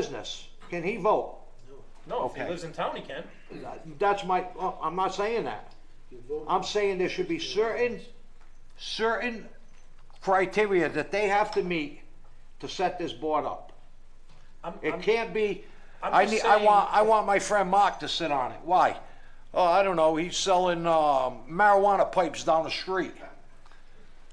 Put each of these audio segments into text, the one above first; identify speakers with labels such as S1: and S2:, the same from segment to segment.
S1: business, can he vote?
S2: No, if
S1: Okay.
S2: he lives in town, he can.
S1: That's my, oh, I'm not saying that. I'm saying there should be certain, certain criteria that they have to meet to set this board up.
S2: I'm,
S1: It
S2: I'm-
S1: can't be,
S2: I'm
S1: I
S2: just
S1: need, I
S2: saying-
S1: want, I want my friend Mark to sit on it. Why? Oh, I don't know, he's selling um, marijuana pipes down the street.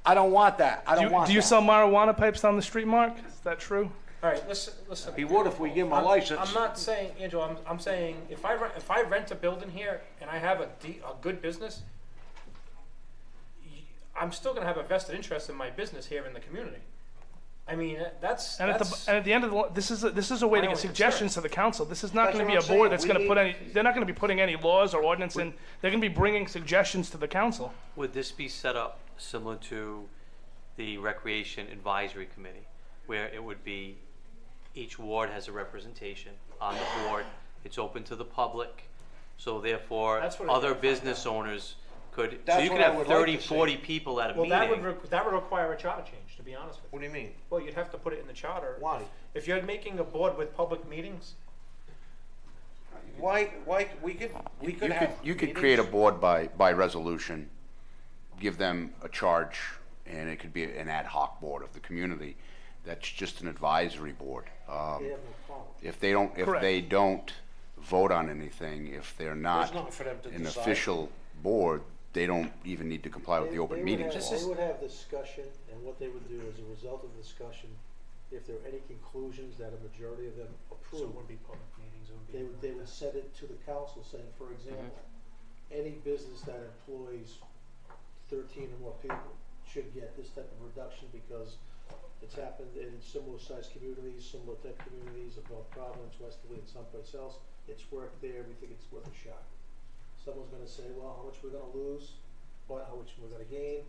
S1: I don't want that, I
S3: Do
S1: don't
S3: you,
S1: want
S3: do you
S1: that.
S3: sell marijuana pipes down the street, Mark? Is that true?
S2: All right, listen, listen.
S1: He would if we give him a
S2: I'm-
S1: license.
S2: I'm not saying, Angel. I'm, I'm saying if I rent, if I rent a building here and I have a de- a good business, y- I'm still gonna have a vested interest in my business here in the community. I mean, that's
S3: And at, the,
S2: that's
S3: and at the end of the lo- this is a, this is a way
S2: I
S3: to
S2: know
S3: get
S2: what you're
S3: suggestions to the council. This is not
S1: That's
S3: going to
S1: what
S3: be a
S1: I'm saying.
S3: board that's
S1: We
S3: going to put
S1: need-
S3: any. They're not going to be putting any laws or ordinance in. They're going to be bringing suggestions to the council.
S4: Would this be set up similar to the Recreation Advisory Committee, where it would be, each ward has a representation on the board, it's open to the public, so therefore,
S2: That's what I
S4: other
S2: wanna find
S4: business owners could, so
S1: That's
S4: you could
S1: what I
S4: have
S1: would like
S4: thirty,
S1: to see.
S4: forty people at a
S2: well, that would
S4: meeting.
S2: re- that would require a charter change, to be honest with you.
S1: What do you mean?
S2: Well, you'd have to put it in the charter.
S1: Why?
S2: If you're making a board with public meetings,
S1: Why, why, we could, we could
S5: You could,
S1: have.
S5: you could create a board by, by resolution, give them a charge, and it could be an ad hoc board of the community. That's just an advisory board. Um, If they don't, if
S3: Correct.
S5: they don't vote on anything, if they're not
S1: There's nothing for them to
S5: an
S1: decide.
S5: official board, they don't even need to comply with the
S6: They-
S5: open
S6: they would
S5: meetings
S6: have-
S5: law.
S6: They would have discussion, and what they would do as a result of the discussion, if there are any conclusions that a majority of them
S2: so it
S6: approve,
S2: wouldn't be public meetings. It would be
S6: they would, they would send it to the council saying, for example, any business that employs thirteen or more people should get this type of reduction because it's happened in similar sized communities, similar type communities of North Providence, Westerly, and someplace else. It's worked there, we think it's worth a shot. Someone's gonna say, well, how much we're gonna lose, but how much we're gonna gain.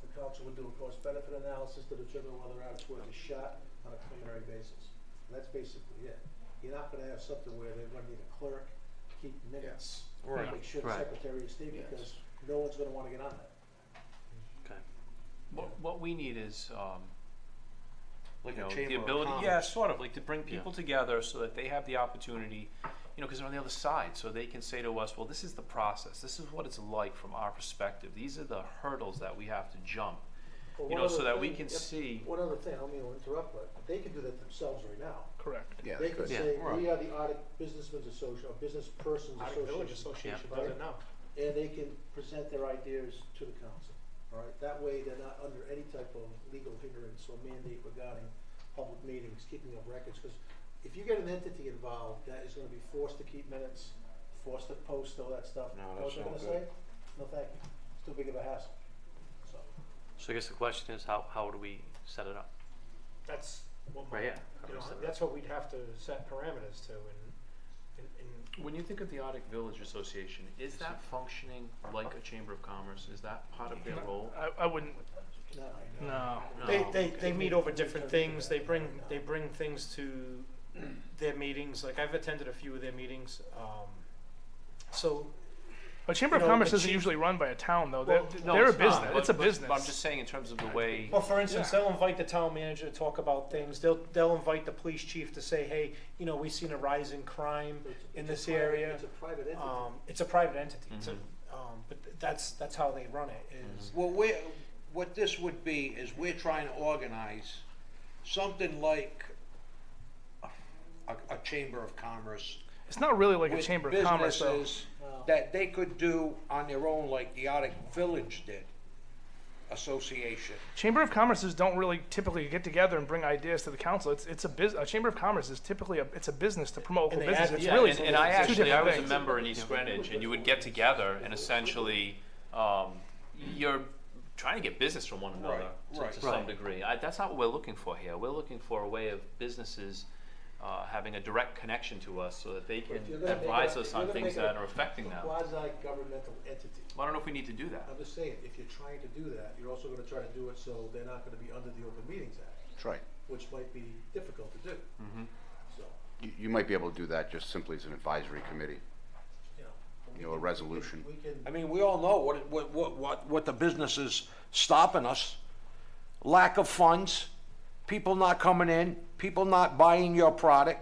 S6: The council would do a cost benefit analysis to determine whether or not it's worth a shot on a preliminary basis. And that's basically it. You're not gonna have something where they're gonna need a clerk, keep minutes, make sure the
S4: Right.
S6: Secretary of State, because no one's gonna wanna get on that.
S4: Okay.
S7: What, what we need is, um,
S1: Like
S7: you
S1: a
S7: know,
S1: chamber
S7: the
S1: of
S7: ability,
S1: commerce.
S7: yeah, sort of, like to bring people together so that they have the opportunity, you know, because they're on the other side, so they can say to us, well, this is the process, this is what it's like from our perspective, these are the hurdles that we have to jump.
S6: Well,
S7: You
S6: one
S7: know, so
S6: other
S7: that we
S6: thing-
S7: can
S6: yep,
S7: see-
S6: One other thing, I don't mean to interrupt, but they can do that themselves right now.
S3: Correct.
S5: Yeah,
S6: They
S5: they
S6: can
S5: could.
S6: say,
S1: Yeah.
S6: we are the Audit Businessmen's Association, or Business Persons
S2: Out of Village
S6: Association.
S2: Association
S6: Yeah.
S2: does it now.
S6: And they can present their ideas to the council, all right? That way, they're not under any type of legal hindrance or mandate regarding public meetings, keeping of records. Because if you get an entity involved that is gonna be forced to keep minutes, forced to post all that stuff,
S1: No,
S6: know
S1: that's
S6: what they're
S1: no
S6: gonna say?
S1: good.
S6: No, thank you. It's too big of a hassle, so.
S4: So I guess the question is, how, how do we set it up?
S2: That's what my,
S4: Right, yeah.
S2: you know, that's what we'd have to set parameters to and, and, and
S7: When you think of the Arctic Village Association, is that functioning like a Chamber of Commerce, is that part of their role?
S3: I, I wouldn't.
S6: No, I know.
S3: No.
S2: they,
S7: No.
S2: they, they meet over different things, they bring, they bring things to their meetings, like I've attended a few of their meetings, um, so,
S3: A chamber
S2: You
S3: of
S2: know,
S3: commerce
S2: the
S3: isn't
S2: chief-
S3: usually run by a town though.
S2: Well,
S3: they're
S7: No,
S3: they're a
S7: it's not,
S3: business.
S7: but-
S3: it's a
S7: but- but
S3: business.
S7: I'm just saying in terms of the way,
S2: well, for instance, they'll invite the town manager to talk about things, they'll, they'll invite the police chief to say, hey, you know, we've seen a rise in crime
S6: It's-
S2: in
S6: it's a
S2: this
S6: private-
S2: area.
S6: It's a private entity.
S2: Um, it's a private entity, it's a, um, but th- that's, that's how they run it, is
S1: Well, we're, what this would be is we're trying to organize something like a, a chamber of commerce.
S3: it's not really like a
S1: with
S3: chamber of commerce though.
S1: businesses That they could do on their own like the Arctic Village did, association.
S3: Chamber of commerces don't really typically get together and bring ideas to the council. It's it's a business. A chamber of commerce is typically a it's a business to promote
S2: And
S3: local
S2: they
S3: business. It's
S2: advertise
S3: really
S7: and, and I
S3: it's two
S7: actually I
S3: different
S7: was a
S3: things.
S7: member in East Greenwich, and you would get together and essentially um, you're trying to get business from one another
S1: Right,
S7: to,
S1: right.
S7: to some degree. I, that's not what we're looking for here. We're looking for a way of businesses. Uh, having a direct connection to us so that they can
S6: if you're gonna make
S7: advise
S6: it a-
S7: us
S6: if you're
S7: on
S6: gonna make
S7: things
S6: it a-
S7: that are affecting them. Well,
S6: Quasi-governmental entity.
S7: I don't know if we need to do that.
S6: I'm just saying, if you're trying to do that, you're also gonna try to do it so they're not gonna be under the Open Meetings Act,
S5: That's right.
S6: which might be difficult to do. So,
S5: You, you might be able to do that just simply as an advisory committee,
S6: you know.
S5: you know, a resolution.
S6: We can,
S1: I mean, we all know what, it- what, what, what, what the business is stopping us. Lack of funds, people not coming in, people not buying your product,